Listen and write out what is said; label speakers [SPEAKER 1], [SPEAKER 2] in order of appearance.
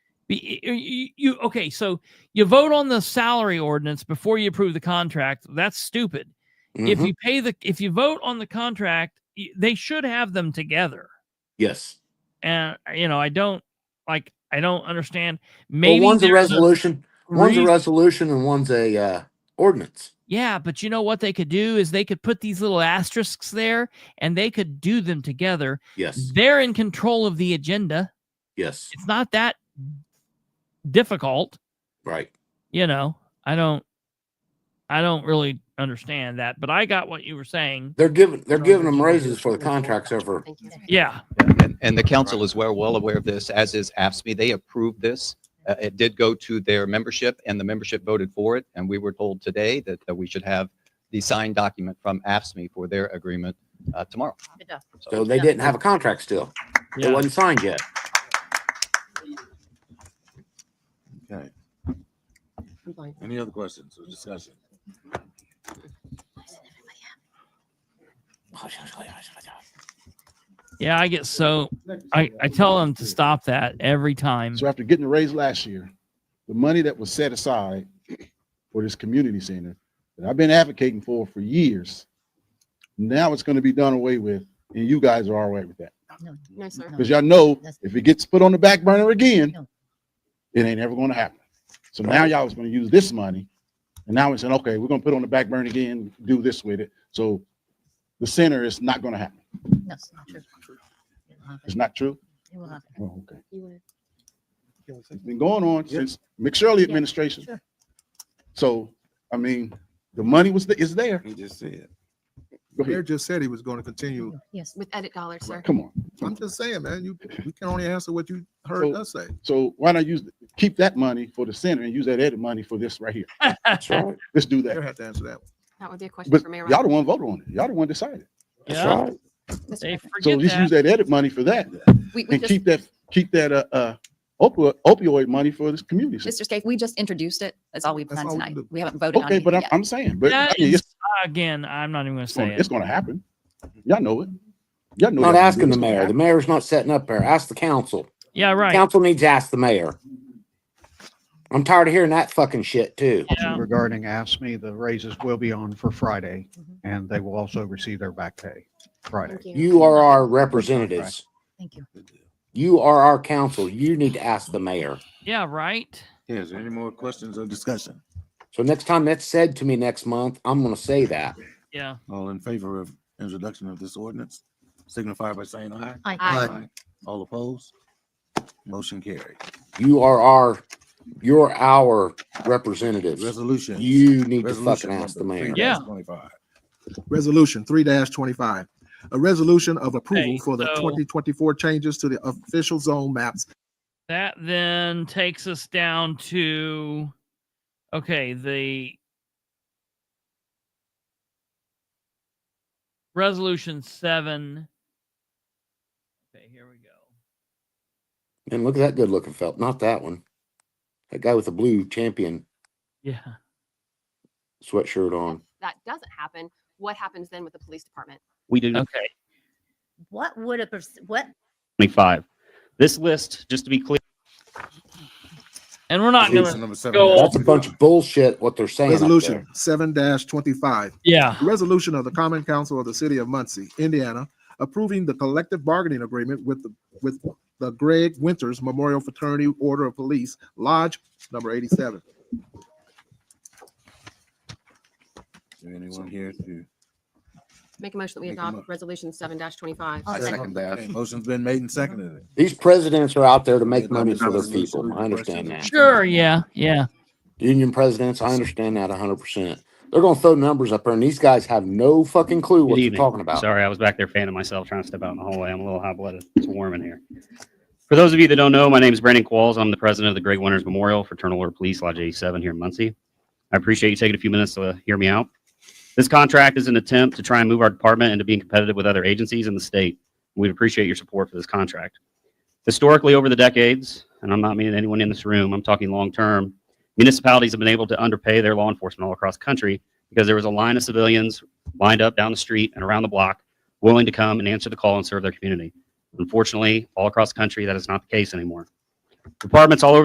[SPEAKER 1] Be- y- y- You okay? So you vote on the salary ordinance before you approve the contract. That's stupid. If
[SPEAKER 2] Mhm.
[SPEAKER 1] you pay the if you vote on the contract, y- they should have them together.
[SPEAKER 2] yes.
[SPEAKER 1] And you know, I don't like. I don't understand.
[SPEAKER 2] Well,
[SPEAKER 1] Maybe
[SPEAKER 2] one's a
[SPEAKER 1] there's a
[SPEAKER 2] resolution, one's a
[SPEAKER 1] reason-
[SPEAKER 2] resolution and one's a uh, ordinance.
[SPEAKER 1] Yeah, but you know what they could do is they could put these little asterisks there and they could do them together.
[SPEAKER 2] Yes.
[SPEAKER 1] They're in control of the agenda.
[SPEAKER 2] Yes.
[SPEAKER 1] It's not that difficult,
[SPEAKER 2] Right.
[SPEAKER 1] you know. I don't I don't really understand that, but I got what you were saying.
[SPEAKER 2] They're giving, they're
[SPEAKER 1] So
[SPEAKER 2] giving
[SPEAKER 1] that
[SPEAKER 2] them
[SPEAKER 1] you
[SPEAKER 2] raises
[SPEAKER 1] just-
[SPEAKER 2] for the contracts over.
[SPEAKER 1] Yeah.
[SPEAKER 3] And, and the council is well, well aware of this, as is AFSMI. E. They approved this. Uh, It did go to their membership and the membership voted for it. And we were told today that, that we should have the signed document from AFSMI E for their agreement uh, tomorrow.
[SPEAKER 2] So they didn't have a contract still. It
[SPEAKER 1] yeah.
[SPEAKER 2] wasn't signed yet.
[SPEAKER 4] Okay. Any other questions or discussion?
[SPEAKER 1] Yeah, I get so I, I tell them to stop that every time.
[SPEAKER 5] So after getting the raise last year, the money that was set aside for this community center that I've been advocating for for years, now it's going to be done away with, and you guys are all right with that
[SPEAKER 6] No, sir.
[SPEAKER 5] because y'all know if it gets put on the back burner again, it ain't ever going to happen. So now y'all is going to use this money, and now it's saying, okay, we're going to put it on the back burner again, do this with it. So the center is not going to happen.
[SPEAKER 6] No, it's not true. It will happen.
[SPEAKER 5] It's not true.
[SPEAKER 6] It will happen.
[SPEAKER 5] Oh, okay.
[SPEAKER 6] You will.
[SPEAKER 5] It's been going on since McShirley administration.
[SPEAKER 6] sure.
[SPEAKER 5] So, I mean, the money was, th- is there.
[SPEAKER 4] He just said.
[SPEAKER 5] Go
[SPEAKER 7] Mayor
[SPEAKER 5] ahead.
[SPEAKER 7] just said he was gonna continue.
[SPEAKER 6] Yes, with edit dollars, sir.
[SPEAKER 5] Come on.
[SPEAKER 7] I'm just saying, man, you, you can only answer what you heard
[SPEAKER 5] So-
[SPEAKER 7] us say.
[SPEAKER 5] So why not use, keep that money for the center and use that edit money for this right here?
[SPEAKER 2] That's right.
[SPEAKER 5] Let's do
[SPEAKER 7] Mayor
[SPEAKER 5] that.
[SPEAKER 7] had to answer that.
[SPEAKER 6] That would be a question
[SPEAKER 5] But
[SPEAKER 6] for Mayor.
[SPEAKER 5] y'all the one voted on it. Y'all the one decided.
[SPEAKER 2] That's
[SPEAKER 1] yeah.
[SPEAKER 2] right.
[SPEAKER 6] Roberts. Mr.
[SPEAKER 1] They
[SPEAKER 6] President,
[SPEAKER 5] So
[SPEAKER 1] forget
[SPEAKER 5] just use
[SPEAKER 1] that.
[SPEAKER 5] that edit money for that
[SPEAKER 6] We, we
[SPEAKER 5] and
[SPEAKER 6] just,
[SPEAKER 5] keep that, keep that, uh, uh, opioid, opioid money for this community. center.
[SPEAKER 6] Mr. Scaife, we just introduced it. That's all we've
[SPEAKER 7] That's
[SPEAKER 6] done
[SPEAKER 7] all we
[SPEAKER 6] tonight.
[SPEAKER 7] do.
[SPEAKER 6] We haven't voted on
[SPEAKER 5] Okay,
[SPEAKER 6] it
[SPEAKER 5] but I'm,
[SPEAKER 6] yet.
[SPEAKER 5] I'm saying, but I
[SPEAKER 1] That
[SPEAKER 5] mean,
[SPEAKER 1] is-
[SPEAKER 5] it's,
[SPEAKER 1] again, I'm not even gonna say
[SPEAKER 5] gonna-
[SPEAKER 1] it.
[SPEAKER 5] it's gonna happen. Y'all know it. Y'all know.
[SPEAKER 2] Not
[SPEAKER 5] that.
[SPEAKER 2] asking the
[SPEAKER 5] It's gonna
[SPEAKER 2] mayor. The
[SPEAKER 5] happen.
[SPEAKER 2] mayor's not setting up there. Ask the council.
[SPEAKER 1] Yeah, right.
[SPEAKER 2] Council needs to ask the mayor. I'm tired of hearing that fucking shit too.
[SPEAKER 1] Yeah.
[SPEAKER 8] regarding AFSMI, the raises will be on for Friday,
[SPEAKER 6] Mhm.
[SPEAKER 8] and they will also receive their back pay Friday.
[SPEAKER 6] Thank you.
[SPEAKER 2] You are our representatives.
[SPEAKER 6] Thank you.
[SPEAKER 2] You are our council. You need to ask the mayor.
[SPEAKER 1] Yeah, right.
[SPEAKER 4] Yeah, is there any more questions or discussion?
[SPEAKER 2] So next time that's said to me next month, I'm gonna say that.
[SPEAKER 1] Yeah.
[SPEAKER 4] All in favor of introduction of this ordinance, signify by saying aye.
[SPEAKER 6] Aye.
[SPEAKER 4] All opposed? Motion carried.
[SPEAKER 2] You are our, you're our representatives.
[SPEAKER 4] Resolution.
[SPEAKER 2] You need to
[SPEAKER 4] Resolution
[SPEAKER 2] fucking ask the
[SPEAKER 4] number
[SPEAKER 2] mayor.
[SPEAKER 1] Yeah.
[SPEAKER 4] 3-25.
[SPEAKER 7] Resolution three twenty-five, a resolution of approval
[SPEAKER 1] Okay,
[SPEAKER 7] for the
[SPEAKER 1] so-
[SPEAKER 7] twenty twenty-four changes to the official zone maps.
[SPEAKER 1] That then takes us down to okay, the resolution seven. Okay, here we go.
[SPEAKER 2] And look at that good looking felt, not that one. That guy with the blue champion
[SPEAKER 1] Yeah.
[SPEAKER 2] sweatshirt on.
[SPEAKER 6] That doesn't happen. What happens then with the police department?
[SPEAKER 9] we do
[SPEAKER 1] Okay.
[SPEAKER 10] What would a, pers- what
[SPEAKER 9] 25. This list, just to be clear,
[SPEAKER 1] And we're not
[SPEAKER 4] Resolution
[SPEAKER 1] gonna
[SPEAKER 4] number seven.
[SPEAKER 1] go-
[SPEAKER 2] That's a bunch of bullshit what they're saying. up there.
[SPEAKER 7] Resolution seven twenty-five,
[SPEAKER 1] Yeah.
[SPEAKER 7] a resolution of the Common Council of the City of Muncie, Indiana, approving the collective bargaining agreement with the, with the Greg Winters Memorial Fraternity Order of Police Lodge Number eighty-seven.
[SPEAKER 4] Is there anyone here to?
[SPEAKER 6] Make a motion that we
[SPEAKER 4] Make a mo-
[SPEAKER 6] adopt resolution seven twenty-five.
[SPEAKER 10] I'll second.
[SPEAKER 4] Okay, Motion's been made and seconded.
[SPEAKER 2] These presidents are out there to make money for their people. I understand that.
[SPEAKER 1] Sure, yeah, yeah.
[SPEAKER 2] Union presidents, I understand that hundred percent. They're gonna throw numbers up there and these guys have no fucking clue what
[SPEAKER 9] Good
[SPEAKER 2] you're
[SPEAKER 9] evening.
[SPEAKER 2] talking about.
[SPEAKER 9] sorry, I was back there fanning myself, trying to step out in the hallway. I'm a little hot blooded. It's warm in here. For those of you that don't know, my name is Brandon Qualls. I'm the president of the Greg Winters Memorial Fraternal Order Police Lodge 87 here in Muncie. I appreciate you taking a few minutes to hear me out. This contract is an attempt to try and move our department into being competitive with other agencies in the state. We'd appreciate your support for this contract. Historically, over the decades, and I'm not meaning anyone in this room, I'm talking long term, municipalities have been able to underpay their law enforcement all across the country because there was a line of civilians lined up down the street and around the block willing to come and answer the call and serve their community. Unfortunately, all across the country, that is not the case anymore. Departments all over